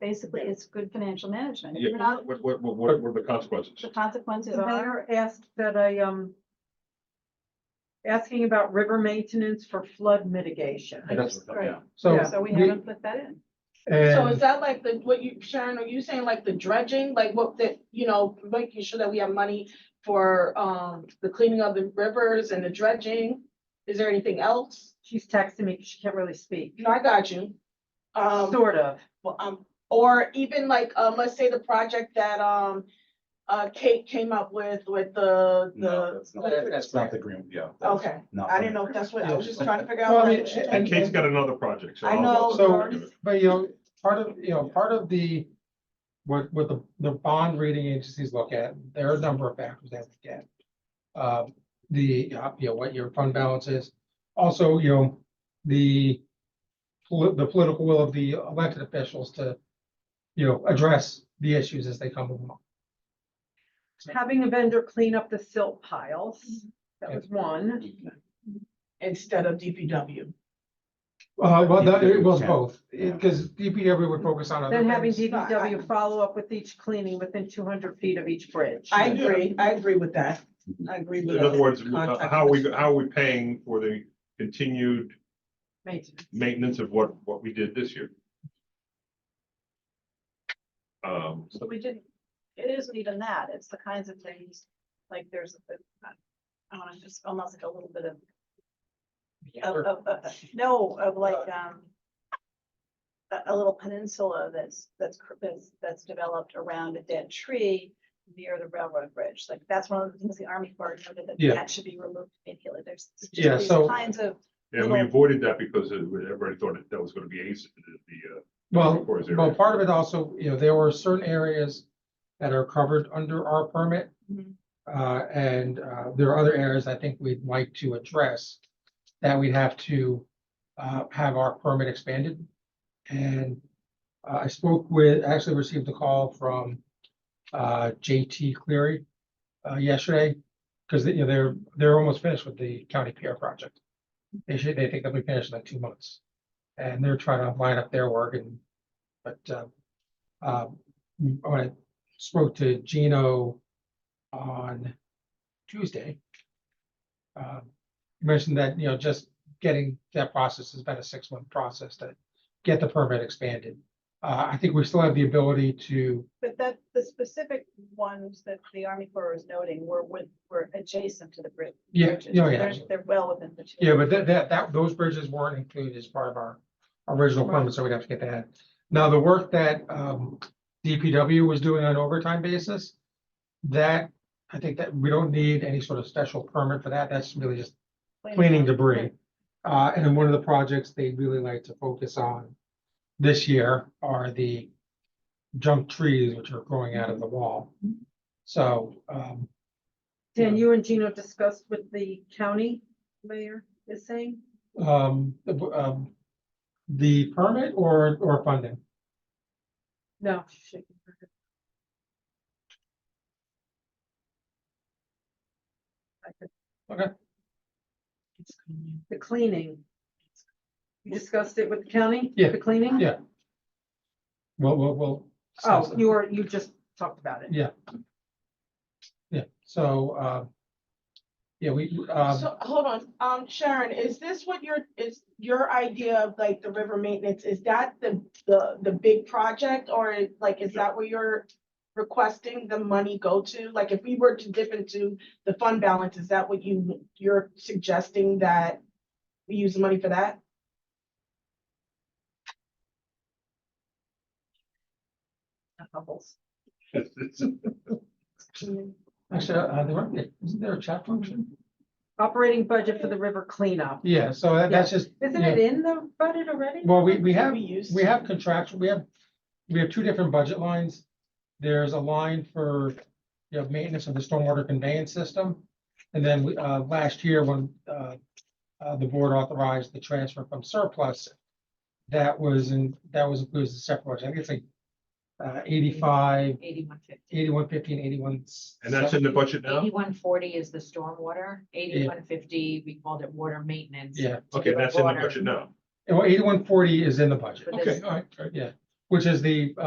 basically it's good financial management. If you're Yeah, not, what, what, what, what what are the consequences? the consequences The are, mayor asked that I, um, asking about river maintenance for flood mitigation. That's, Right. yeah. So. Yeah. so we the- haven't put that in. So is And that like the, what you, Sharon, are you saying like the dredging, like what that, you know, making sure that we have money for um the cleaning of the rivers and the dredging? Is there anything else? She's texting me, 'cause she can't really speak, No, I got you. Um, sort of. well, um, or even like, um, let's say the project that um uh Kate came up with with the No, the. that's not, that- that's not the green, yeah. that's Okay, not I the- didn't know if that's what, I was just trying to figure Well, out. I mean, like- and- And Kate's got another project, so. I I'll- know. so, but you know, part of, you know, part of the, what, what the, the bond rating agencies look at, there are a number of factors they look at. Uh, the, uh, you know, what your fund balance is, also, you know, the poli- the political will of the elected officials to, you know, address the issues as they come along. Having a vendor clean up the silt piles, that was one. Instead of DPW. Uh, well, that, it was Yeah. both, because DPW would focus on other Then having things. DPW follow up with each cleaning within two hundred feet of each bridge. I agree, I agree with that. I agree with. In other words, uh, the contract. how are we, how are we paying for the continued Maintenance. maintenance of what, what we did this year? Um, So we didn't, it isn't even that. It's the kinds of things, like there's, a- I want to just almost like a little bit of of, Or- of, of- no, of like, um. A, a little peninsula that's, that's, cr- that's, that's developed around a dead tree near the railroad bridge. Like, that's one of the things the Army Corps noted that Yeah. that should be removed immediately. There's. just Yeah, these so- Kinds of, and we avoided that because it- everybody thought that that was gonna be ace, the, uh. Well, Corps area. Well, part of it also, you know, there were certain areas that are covered under our permit. Mhm. Uh, and, uh, there are other areas I think we'd like to address that we'd have to, uh, have our permit expanded. And uh, I spoke with, actually received a call from, uh, JT Cleary, uh, yesterday. Cause they- you know, they're, they're almost finished with the county pier project. They should, they think they'll be finished in like two months. And they're trying to line up their work and but, um, um, when I spoke to Gino on Tuesday, um, he mentioned that, you know, just getting that process has been a six-month process to get the permit expanded. Uh, I think we still have the ability to, but that, the specific ones that the Army Corps is noting were with, were adjacent to the bridge. yeah, bridges. you know, They're, yeah, they're well within the. two. yeah, but that, that, that, those bridges weren't included as part of our original permit, so we'd have to get that. Now, the work that, um, DPW was doing on an overtime basis, that, I think that we don't need any sort of special permit for that, that's really just cleaning debris. Uh, and then one of the projects they really like to focus on this year are the junk trees which are growing out of the wall. So, um, Dan, you and Gino discussed with the county mayor is saying? um, the, um, the permit or, or funding? No, she's shaking her head. I could- Okay. The cleaning. You discussed it with the county? Yeah, The cleaning? yeah. Well, well, well. Oh, you were, you just talked about it. Yeah, so, uh, yeah, we, um, So, hold on, um, Sharon, is this what your, is your idea of like the river maintenance, is that the, the, the big project? Or is- like, is that where you're requesting the money go to? Like, if we were to dip into the fund balance, is that what you, you're suggesting that we use the money for that? Bubbles. actually, uh, there weren't, isn't there a chat function? Operating budget for the river cleanup. Yeah, so that- that's just. Isn't yeah. it in the budget already? Well, we, we have, We used. we have contractual, we have, we have two different budget lines. There's a line for, you know, maintenance of the stormwater conveyance system. And then, we, uh, last year when, uh, uh, the board authorized the transfer from surplus, that was in, that was included as a separate, budget. I think it's like, uh, eighty-five, Eighty-one fifty. eighty-one fifteen, eighty-one. And that's in the budget now? Eighty-one forty is the stormwater, eighty-one fifty, we called it water maintenance. Yeah, Okay, that's in the Water. budget now. well, eighty-one forty is in the budget, But Okay, this- all right, all right. which is the, uh,